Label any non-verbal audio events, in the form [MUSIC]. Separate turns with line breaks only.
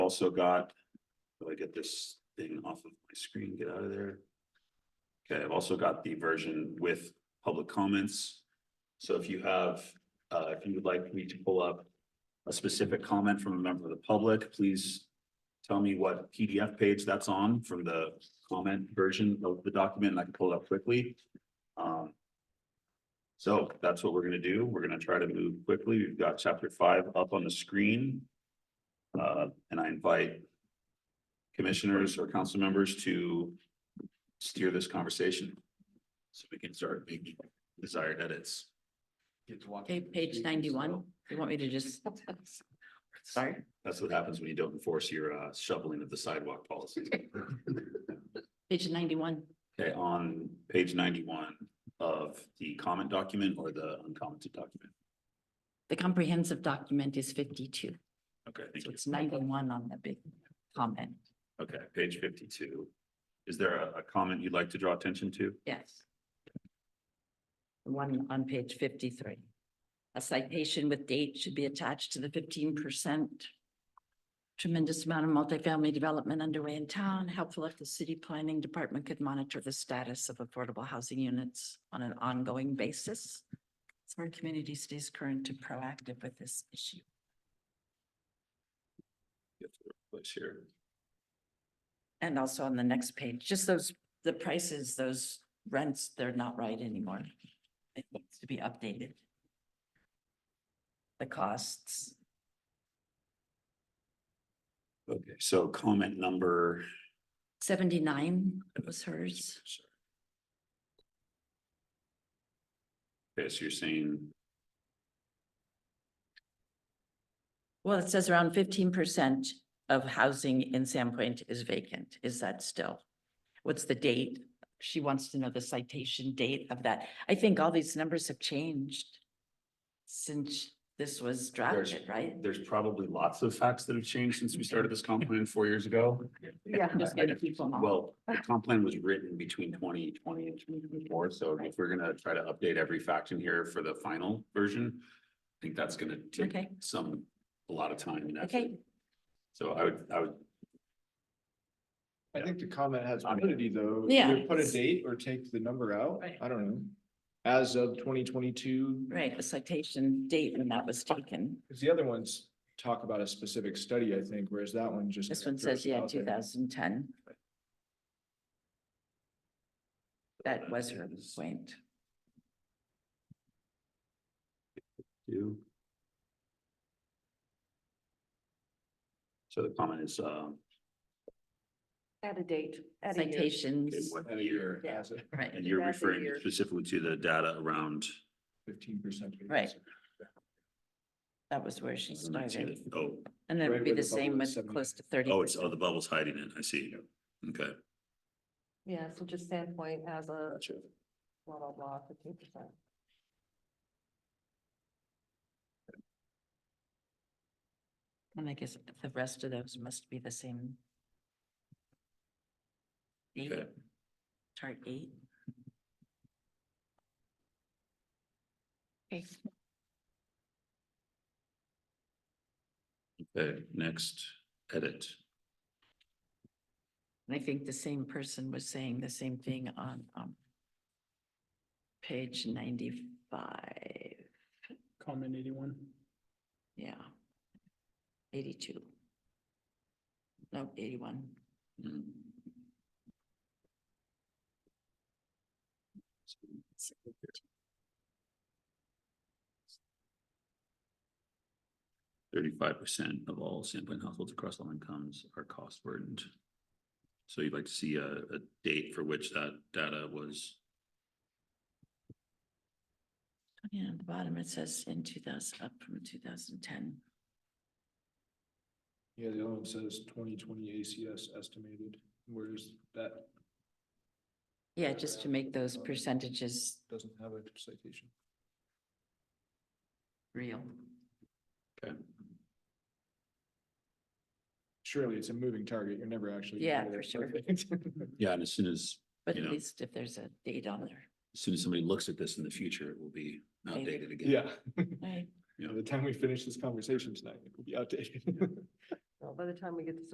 also got, do I get this thing off of my screen, get out of there? Okay, I've also got the version with public comments. So if you have, uh, if you would like me to pull up a specific comment from a member of the public, please tell me what PDF page that's on from the comment version of the document, and I can pull it up quickly. Um, so that's what we're gonna do. We're gonna try to move quickly. We've got chapter five up on the screen. Uh, and I invite commissioners or council members to steer this conversation. So we can start making desired edits.
Okay, page ninety-one, you want me to just? Sorry,
That's what happens when you don't enforce your uh, shoveling of the sidewalk policy.
page ninety-one,
Okay, on page ninety-one of the comment document or the uncommented document.
the comprehensive document is fifty-two,
Okay, thank
so
you.
it's ninety-one on the big comment,
Okay, page fifty-two. Is there a, a comment you'd like to draw attention to?
yes. The One on page fifty-three. A citation with date should be attached to the fifteen percent. Tremendous amount of multifamily development underway in town, helpful if the city planning department could monitor the status of affordable housing units on an ongoing basis. So our community stays current and proactive with this issue.
Place here.
And also on the next page, just those, the prices, those rents, they're not right anymore. It needs to be updated. The costs,
Okay, so comment number,
seventy-nine was hers.
okay, so you're saying,
Well, it says around fifteen percent of housing in Sandpoint is vacant. Is that still? What's the date? She wants to know the citation date of that. I think all these numbers have changed since this was drafted, right?
there's probably lots of facts that have changed since we started this comp plan four years ago.
Yeah, I'm just gonna keep them all.
Well, the comp plan was written between twenty twenty and twenty twenty-four, so if we're gonna try to update every fact in here for the final version, I think that's gonna take
Okay.
some, a lot of time and effort.
Okay,
So I would, I would,
I think the comment has
I mean-
validity though.
Yeah.
Either Put a date or take the number out.
Right.
I don't know. As of twenty twenty-two,
right, the citation date when that was taken.
because the other ones talk about a specific study, I think, whereas that one just.
This one says,
throws it
yeah,
out there.
two thousand ten. That was her point.
do. So the comment is, um,
At a date. at a year.
okay,
Citations,
what
At a
year?
year, as a
right,
And you're
That's a
referring
year.
specifically to the data around.
fifteen percent.
Right. that was where she started.
Oh,
And it would
Right
be
where
the
the bubble
same
is
with
70.
close to thirty.
oh, it's, oh, the bubble's hiding it. I see. Okay,
Yeah, so just standpoint as a
Gotcha.
blah, blah, blah, fifteen percent.
And I guess the rest of those must be the same. Eight,
Okay.
chart eight. Okay.
okay, next edit.
And I think the same person was saying the same thing on, um, page ninety-five,
Comment eighty-one.
yeah. Eighty-two. No, eighty-one.
Thirty-five percent of all sampling households across all incomes are cost burdened. So you'd like to see a, a date for which that data was,
Yeah, at the bottom it says in two thousand, up from two thousand ten.
Yeah, the other one says twenty twenty ACS estimated, whereas that
Yeah, just to make those percentages
doesn't have a citation.
real.
okay,
Surely it's a moving target. You're never actually.
Yeah,
gonna
for
get it
sure.
perfect.
yeah, and as soon as,
But
You
at
know.
least if there's a date on there,
as soon as somebody looks at this in the future, it will be outdated again.
[LAUGHS] Yeah.
right?
By the time we finish this conversation tonight, it will be outdated. [LAUGHS]
So by the time we get to